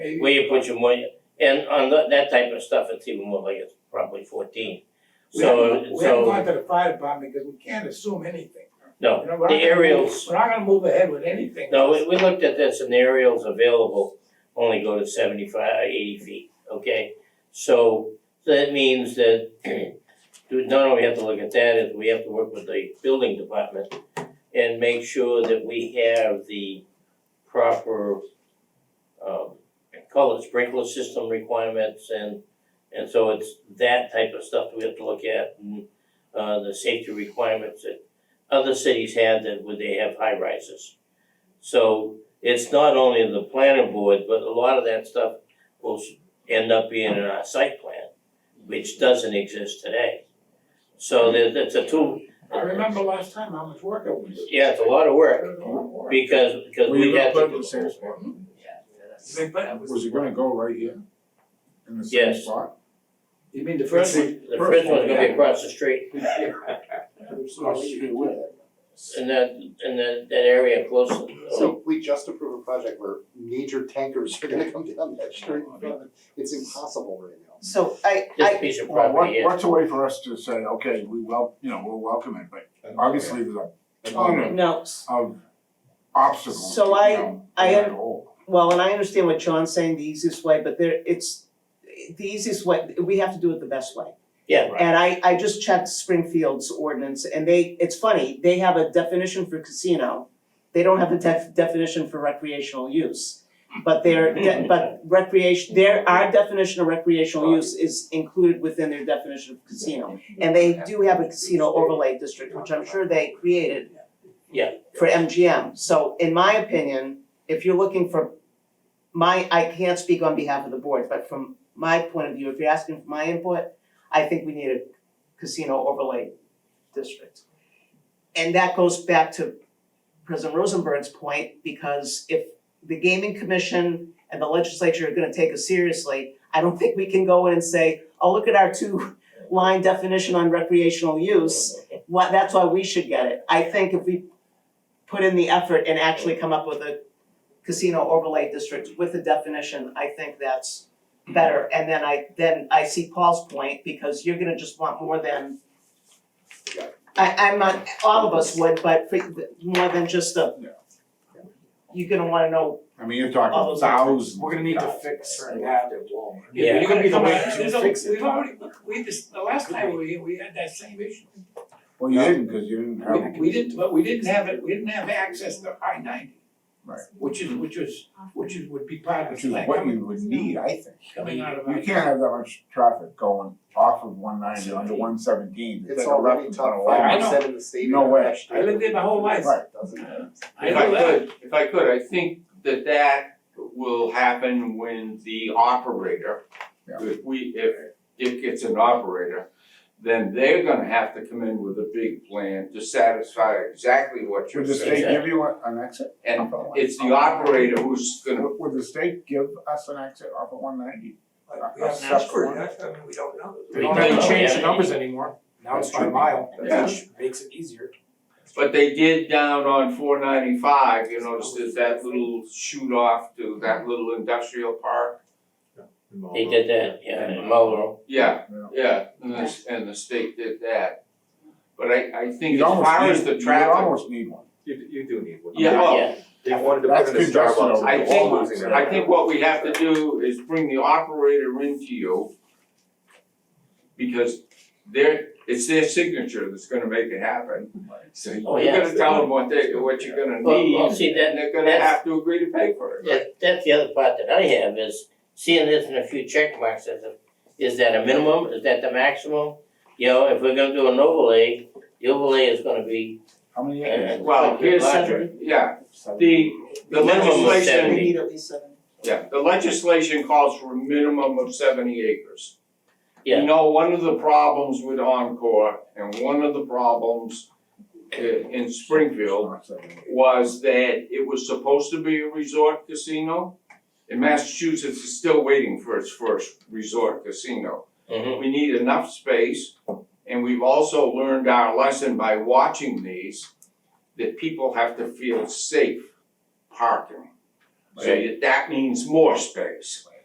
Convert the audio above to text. where you put your money, and on tha- that type of stuff, it's even more like it's probably fourteen. We haven't, So, we haven't so, gone to the fire department because we can't assume anything. no, You know, we're not the gonna move- aerials- We're not gonna move ahead with anything. no, we, we looked at this and the aerials available only go to seventy-five, eighty feet, okay? So, that means that, dude, not only have to look at that, is we have to work with the building department and make sure that we have the proper, um, call it sprinkler system requirements and And so it's that type of stuff that we have to look at and uh the safety requirements that other cities have that would they have high rises. So it's not only the planning board, but a lot of that stuff will s- end up being in our site plan, which doesn't exist today. So there's it's a two, I remember last time how much work it was. yeah, it's a lot of work It was a lot of work. because because Were you we gonna have to. put it do in the same whole- spot? Mm-hmm. They put- Was it gonna go right here? In the same Yes. spot? You mean the First first one, one? the first one's gonna be across the street and that and that that area close to. Oh. So we just approved a project where major tankers are gonna come down that street. It's impossible right now. So I, This I, piece of Well, what, property is. what's a way for us to say, okay, we wel- you know, we'll welcome it, but obviously there's a Um, ton no, s- of, of obstacles. So I- you know, I in am- that hole. well, and I understand what John's saying, the easiest way, but there, it's, the easiest way, we have to do it the best way. Yeah, right. And I, I just checked Springfield's ordinance and they, it's funny, they have a definition for casino. They don't have a def- definition for recreational use. But their, de- but recreation, their, our definition of recreational use is included within their definition of casino. And they do have a casino overlay district, which I'm sure they created. Yeah. For MGM. So in my opinion, if you're looking for my, I can't speak on behalf of the board, but from my point of view, if you're asking for my input, I think we need a casino overlay district. And that goes back to President Rosenberg's point, because if the gaming commission and the legislature are gonna take us seriously, I don't think we can go in and say, oh, look at our two line definition on recreational use, what, that's why we should get it. I think if we put in the effort and actually come up with a casino overlay district with a definition, I think that's better, and then I, then I see Paul's point, because you're gonna just want more than. I, I'm not, all of us would, but for, more than just a. Yeah. You're gonna wanna know, I mean, you're All talking those other thousands. We're gonna need to of fix certain guys. habits. Yeah. You're gonna be the Come on, way there's to a- fix it. We've already, we just, the last time we were here, we had that same issue. Well, you didn't, cause you didn't We, have, we didn't, but we didn't have it, we didn't have access to I ninety. Right. Which is, which was, which is, would be part of which the is plan what coming, you would need, I think. coming out of. You I- can't have that much traffic going off of one ninety onto one seventeen, it's like It's a left already and top I five know. percent in the state. No way. I lived there my whole life. Right. Doesn't. I If I know that. could, if I could, I think that that will happen when the operator, Yeah. if we, if Dick gets an operator, then they're gonna have to come in with a big plan to satisfy exactly what you're Should the state saying. give you a- an exit? And it's the operator who's gonna, Would would the state give us an exit off of one ninety? Like, we haven't asked for it, I mean, we don't know. We don't Yeah. have to change the numbers anymore, now That's it's by true. mile, Yeah. which makes it easier. but they did down on four ninety-five, you notice there's that little shoot off to that little industrial park. They did that, yeah, in Marlboro. Yeah, Yeah. yeah, and the, and the state did that. But I, I think You'd as almost far need- as the you'd traffic. almost need one. You, you do need one. Yeah, well, Yeah, They wanted to put That's in a congested Starbucks. over I there. think, I think what we have to do. do is bring the operator into you. Because their, it's their signature that's gonna make it happen. So Oh, you're yeah. gonna tell them what they, what you're gonna Well, well, need, see, and that- they're gonna that's- have to agree to pay for it. that, that's the other part that I have is seeing this in a few check marks, is, is that a minimum, is that the maximum? You know, if we're gonna do an overlay, the overlay is gonna be, How many uh, acres? Well, here's, larger. yeah, the, the The minimum was we seventy. legislation, need at least seven. yeah, the legislation calls for a minimum of seventy acres. Yeah. You know, one of the problems with Encore and one of the problems i- in Springfield was that it was supposed to be a resort casino. And Massachusetts is still waiting for its first resort casino. Mhm. We need enough space, and we've also learned our lesson by watching these, that people have to feel safe parking. So you- that means more space.